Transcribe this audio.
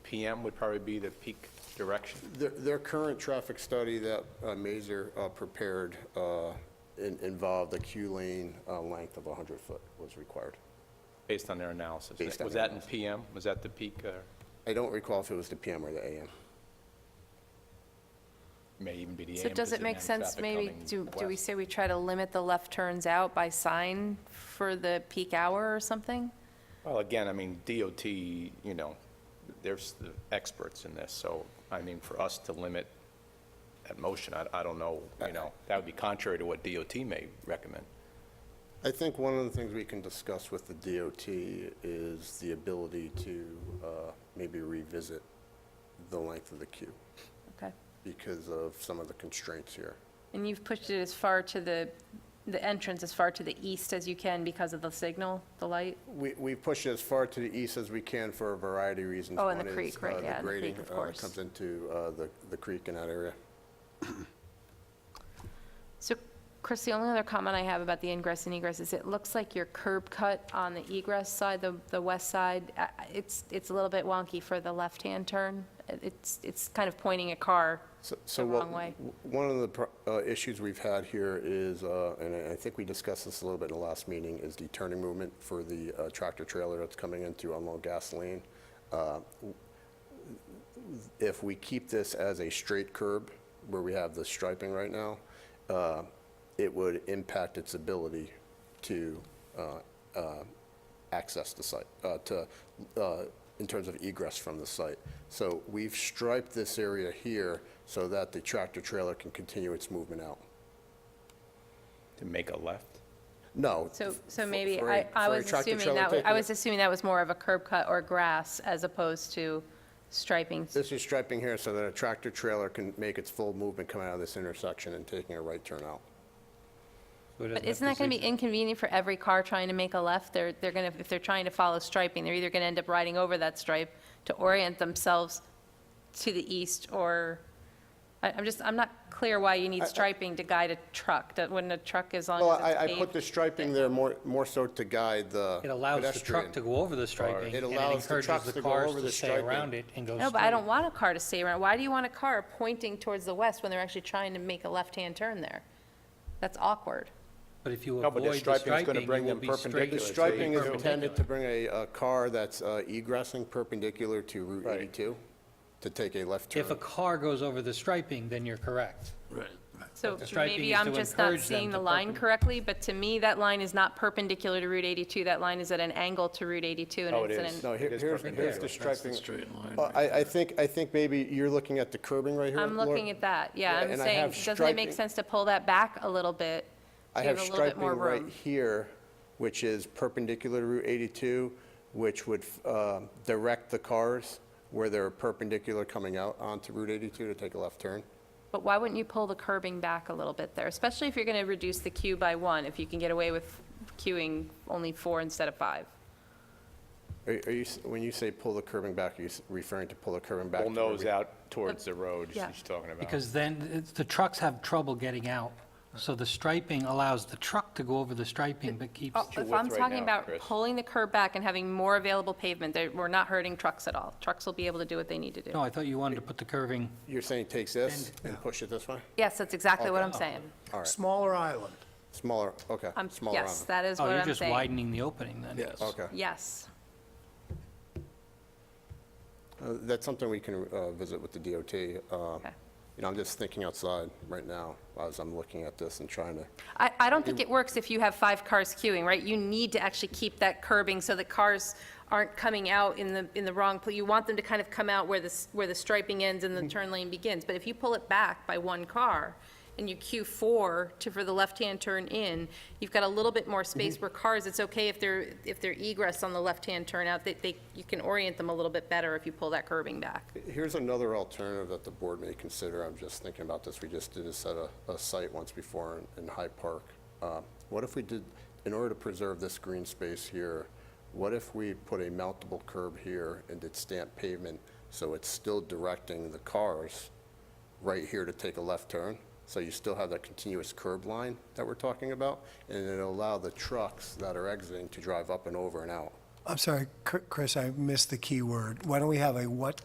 PM would probably be the peak direction. Their, their current traffic study that uh, Mazer uh, prepared uh, in- involved a queue lane uh, length of 100 foot was required. Based on their analysis. Based on Was their that in PM? Was that the peak or I don't recall if it was the PM or the AM. may even be the AM? So does 'cause it make AM sense, traffic maybe, coming do, do we west. say we try to limit the left turns out by sign for the peak hour or something? Well, again, I mean, DOT, you know, there's the experts in this, so, I mean, for us to limit that motion, I, I don't know, you Uh, know, that would be contrary to what DOT may recommend. I think one of the things we can discuss with the DOT is the ability to uh, maybe revisit the length of the queue Okay. because of some of the constraints here. And you've pushed it as far to the, the entrance as far to the east as you can because of the signal, the light? We, we push it as far to the east as we can for a variety of reasons. Oh, and the One is, creek, right, uh, the yeah, and the grading, creek, of uh, course. Comes into uh, the, the creek in that area. So, Chris, the only other comment I have about the ingress and egress is it looks like your curb cut on the egress side, the, the west side, uh, it's, it's a little bit wonky for the left-hand turn. It's, it's kind of pointing a car. So- So The what- wrong way. w- One of the pro- uh, issues we've had here is, uh, and I I think we discussed this a little bit in the last meeting, is the turning movement for the uh, tractor trailer that's coming in to unload gasoline. Uh, w- If we keep this as a straight curb, where we have the striping right now, uh, it would impact its ability to uh, uh, access the site, uh, to, uh, in terms of egress from the site. So we've striped this area here so that the tractor trailer can continue its movement out. To make a left? No. So, for- so maybe, for a- I, I for a was tractor assuming trailer that, wa- I taking was it- assuming that was more of a curb cut or grass as opposed to striping. This is striping here so that a tractor trailer can make its full movement coming out of this intersection and taking a right turn out. But isn't that going to be inconvenient for every car trying to make a left? They're, they're going to, if they're trying to follow striping, they're either going to end up riding over that stripe to orient themselves to the east or, I, I'm just, I'm not clear why you need striping to guide a truck, that when a truck is on, Well, I, it's I put paved. the striping there more, more so to guide the It allows the truck pedestrian. to go over the striping, It and it allows the trucks encourages to the go cars over to the stay striping. around it and go straight. No, but I don't want a car to stay around. Why do you want a car pointing towards the west when they're actually trying to make a left-hand turn there? That's awkward. But if you No, but avoid the the striping's gonna striping, bring you will them be straight. perpendicular. The It's striping is perpendicular. intended to bring a, uh car that's uh, egressing perpendicular to Route 82 to take a left turn. If a car goes over the striping, then you're correct. So The striping maybe is I'm to just not encourage them seeing to the line perpen- correctly, but to me, that line is not perpendicular to Route 82. That line is at an angle to Route 82, and Oh, it it's at is. an- No, here- It is here's, here's perpendicular. the striping. straight line Well, I, I think, I think maybe you're looking at the curbing right here. I'm Laura. looking at that, yeah, Yeah, I'm and I saying, have doesn't it make striping- sense to pull that back a little bit? I to have a little bit striping more right room? here, which is perpendicular to Route 82, which would uh, direct the cars where they're perpendicular coming out onto Route 82 to take a left turn. But why wouldn't you pull the curbing back a little bit there, especially if you're gonna reduce the queue by one, if you can get away with queuing only four instead of five? Are are you, s- when you say pull the curbing back, are you s- referring to pull the curbing back? Bull to where nose we- out towards the road she's Yeah. talking about. Because then it's- the trucks have trouble getting out. So the striping allows the truck to go over the striping, but keeps, Oh, your If I'm width right talking now, about Chris. pulling the curb back and having more available pavement, there- we're not hurting trucks at all. Trucks will be able to do what they need to do. no, I thought you wanted to put the curving, You're saying takes this and push it this way? Yes, that's exactly what I'm saying. Smaller island. Smaller, okay. I'm, smaller Um, yes, on- that is oh, what you're I'm just saying. widening the opening then. Yes. Okay. Yes. Uh, That's something we can uh, visit with the DOT. uh, Okay. You know, I'm just thinking outside right now as I'm looking at this and trying to, I, I don't think it works if you have five cars queuing, right? You need to actually keep that curbing so that cars aren't coming out in the, in the wrong, pla- you want them to kind of come out where the, s- where the striping ends and the turn lane begins. But if you pull it back by one car and you queue four to, for the left-hand turn in, you've got a little bit more space where cars, it's okay if they're, if they're egress on the left-hand turn out, they, they, you can orient them a little bit better if you pull that curbing back. here's another alternative that the board may consider. I'm just thinking about this. We just did this at a, a site once before in- in Hyde Park. Uh, What if we did, in order to preserve this green space here, what if we put a mountable curb here and did stamped pavement so it's still directing the cars right here to take a left turn, so you still have that continuous curb line that we're talking about, and it'll allow the trucks that are exiting to drive up and over and out. I'm sorry, Chr- Chris, I missed the key word. Why don't we have a what